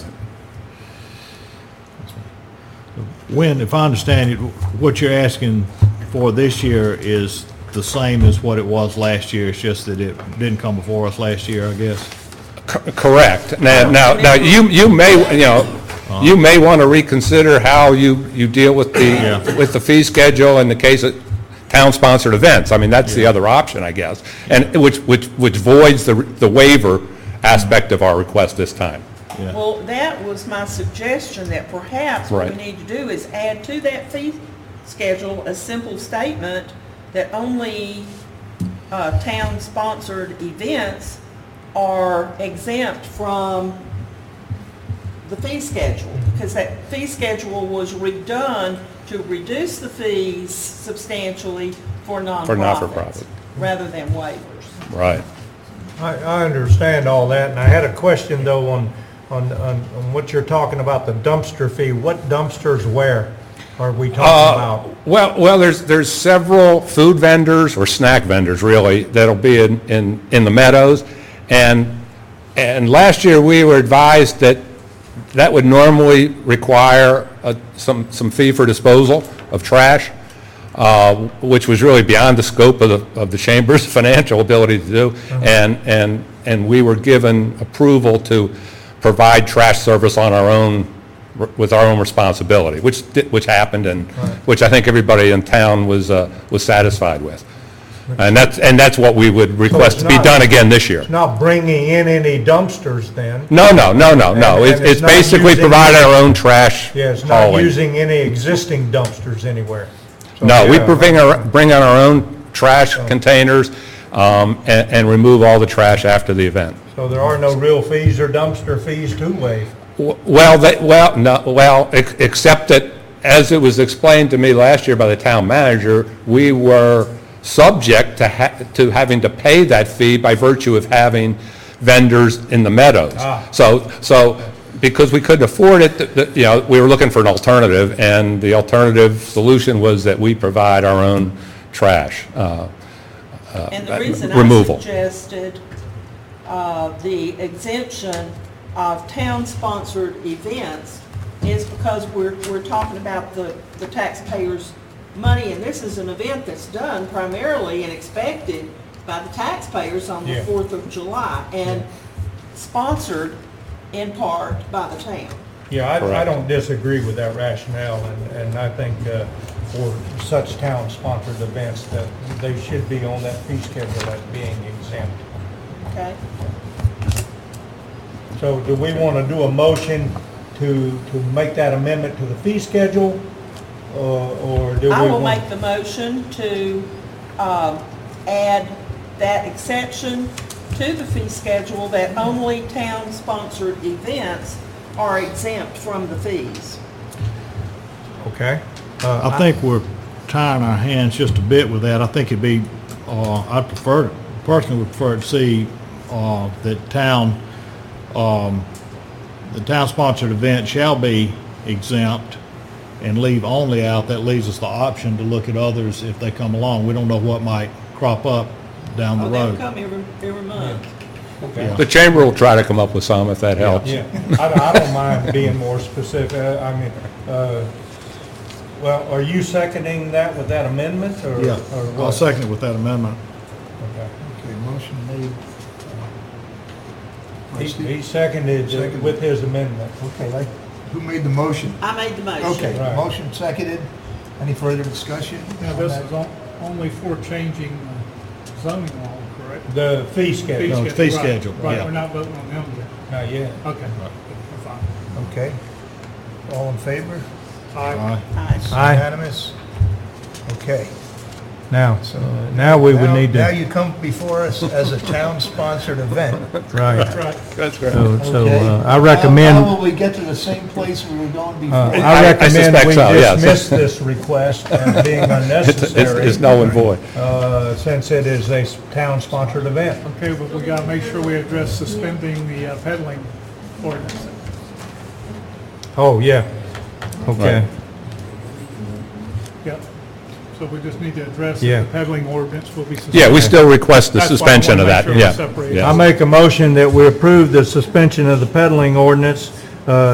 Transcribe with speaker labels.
Speaker 1: When, if I understand it, what you're asking for this year is the same as what it was last year, it's just that it didn't come before us last year, I guess?
Speaker 2: C- Correct. Now, now, now, you, you may, you know, you may want to reconsider how you, you deal with
Speaker 1: Yeah.
Speaker 2: the, with the fee schedule in the case of town-sponsored events. I mean, that's the other option, I guess, and which, which, which voids the, the waiver aspect of our request this time.
Speaker 1: Yeah.
Speaker 3: Well, that was my suggestion, that perhaps what we
Speaker 2: Right.
Speaker 3: need to do is add to that fee schedule a simple statement that only uh, town-sponsored events are exempt from the fee schedule, because that fee schedule was redone to reduce the fees substantially for nonprofits,
Speaker 2: not-for-profit.
Speaker 3: rather than waivers.
Speaker 2: Right.
Speaker 4: I, I understand all that, and I had a question though on, on, on on what you're talking about, the dumpster fee. What dumpsters where are we talking about?
Speaker 2: Well, well, there's, there's several food vendors, or snack vendors, really, that'll be in, in, in the meadows. And, and last year, we were advised that that would normally require uh, some, some fee for disposal of trash, uh, which was really beyond the scope of the, of the chamber's financial ability to do.
Speaker 4: Uh-huh.
Speaker 2: And, and, and we were given approval to provide trash service on our own with our own responsibility, which, di- which happened and, which I think everybody in town was, uh, was satisfied with. And that's, and that's what we would request to be
Speaker 4: not-
Speaker 2: done again this year.
Speaker 4: It's Not bringing in any dumpsters then?
Speaker 2: No, no, no, no, no.
Speaker 4: And-
Speaker 2: It's
Speaker 4: and it's
Speaker 2: it's
Speaker 4: not
Speaker 2: basically
Speaker 4: using-
Speaker 2: provide our own trash
Speaker 4: Yeah, it's not
Speaker 2: hauling.
Speaker 4: using any existing dumpsters anywhere. So,
Speaker 2: No, we
Speaker 4: yeah,
Speaker 2: bring our, bring on our own trash containers um, and, and remove all the trash after the event.
Speaker 4: So there are no real fees or dumpster fees to waive.
Speaker 2: W- Well, that, well, no, well, ex- except that, as it was explained to me last year by the town manager, we were subject to ha, to having to pay that fee by virtue of having vendors in the meadows. So, so, because we couldn't afford it, th- th- you know, we were looking for an alternative, and the alternative solution was that we provide our own trash. Uh,
Speaker 3: And
Speaker 2: uh,
Speaker 3: the reason I
Speaker 2: removal.
Speaker 3: suggested uh, the exemption of town-sponsored events is because we're, we're talking about the, the taxpayers' money, and this is an event that's done primarily and expected by the taxpayers on the
Speaker 4: Yeah.
Speaker 3: 4th of July, and sponsored in part by the town.
Speaker 4: Yeah, I, I
Speaker 2: Correct.
Speaker 4: don't disagree with that rationale, and, and I think uh, for such town-sponsored events that they should be on that fee schedule as being exempt.
Speaker 3: Okay?
Speaker 4: So do we want to do a motion to, to make that amendment to the fee schedule, or or do we
Speaker 3: I will
Speaker 4: want?
Speaker 3: make the motion to um, add that exception to the fee schedule that only town-sponsored events are exempt from the fees.
Speaker 4: Okay.
Speaker 1: Uh, I think we're tying our hands just a bit with that. I think it'd be, uh, I prefer, personally would prefer to see, uh, that town, um, the town-sponsored event shall be exempt and leave only out. That leaves us the option to look at others if they come along. We don't know what might crop up down the
Speaker 3: Oh, they'll
Speaker 1: road.
Speaker 3: come every, every month.
Speaker 4: Okay.
Speaker 2: The chamber will try to come up with some, if that helps.
Speaker 4: Yeah, I don't- I don't mind being more specific, Uh, I mean, uh, well, are you seconding that with that amendment, or?
Speaker 1: Yeah,
Speaker 4: or what?
Speaker 1: I'll second it with that amendment.
Speaker 4: Okay.
Speaker 5: Okay, motion made.
Speaker 4: He he seconded it with his amendment.
Speaker 5: Okay, like, who made the motion?
Speaker 3: I made the motion.
Speaker 5: Okay,
Speaker 4: Right.
Speaker 5: motion seconded. Any further discussion?
Speaker 6: Now, this is on- only for changing uh, zoning law, correct?
Speaker 4: The fee schedule,
Speaker 1: No, it's fee schedule,
Speaker 6: Right,
Speaker 1: yeah.
Speaker 6: right, we're not voting on them yet.
Speaker 4: not yet.
Speaker 6: Okay, we're fine.
Speaker 5: Okay. All in favor?
Speaker 1: Aye.
Speaker 3: Aye.
Speaker 4: Aye.
Speaker 5: Unanimous? Okay.
Speaker 4: Now, uh, now we would
Speaker 5: Now-
Speaker 4: need
Speaker 5: Now
Speaker 4: to,
Speaker 5: you come before us as a town-sponsored event.
Speaker 4: right.
Speaker 6: Right.
Speaker 4: So
Speaker 5: okay?
Speaker 4: uh, I
Speaker 5: How
Speaker 4: recommend,
Speaker 5: how will we get to the same place we were going
Speaker 4: uh,
Speaker 5: before?
Speaker 2: I- I
Speaker 4: I recommend
Speaker 2: suspect
Speaker 4: we
Speaker 2: so, yes.
Speaker 4: dismiss this request as being
Speaker 2: It's, it's- it's
Speaker 4: unnecessary,
Speaker 2: null and void.
Speaker 4: uh, since it is a s- town-sponsored event.
Speaker 6: Okay, but we gotta make sure we address suspending the uh, peddling ordinance.
Speaker 4: Oh, yeah. Okay.
Speaker 6: Yep. So we just need to address
Speaker 4: Yeah.
Speaker 6: that the peddling ordinance will be suspended.
Speaker 2: Yeah, we still request the
Speaker 6: That's why I
Speaker 2: suspension of
Speaker 6: wanna
Speaker 2: that,
Speaker 6: make sure we
Speaker 2: yeah.
Speaker 6: separate
Speaker 2: yeah.
Speaker 4: I make a motion that we approve the suspension of the peddling ordinance uh,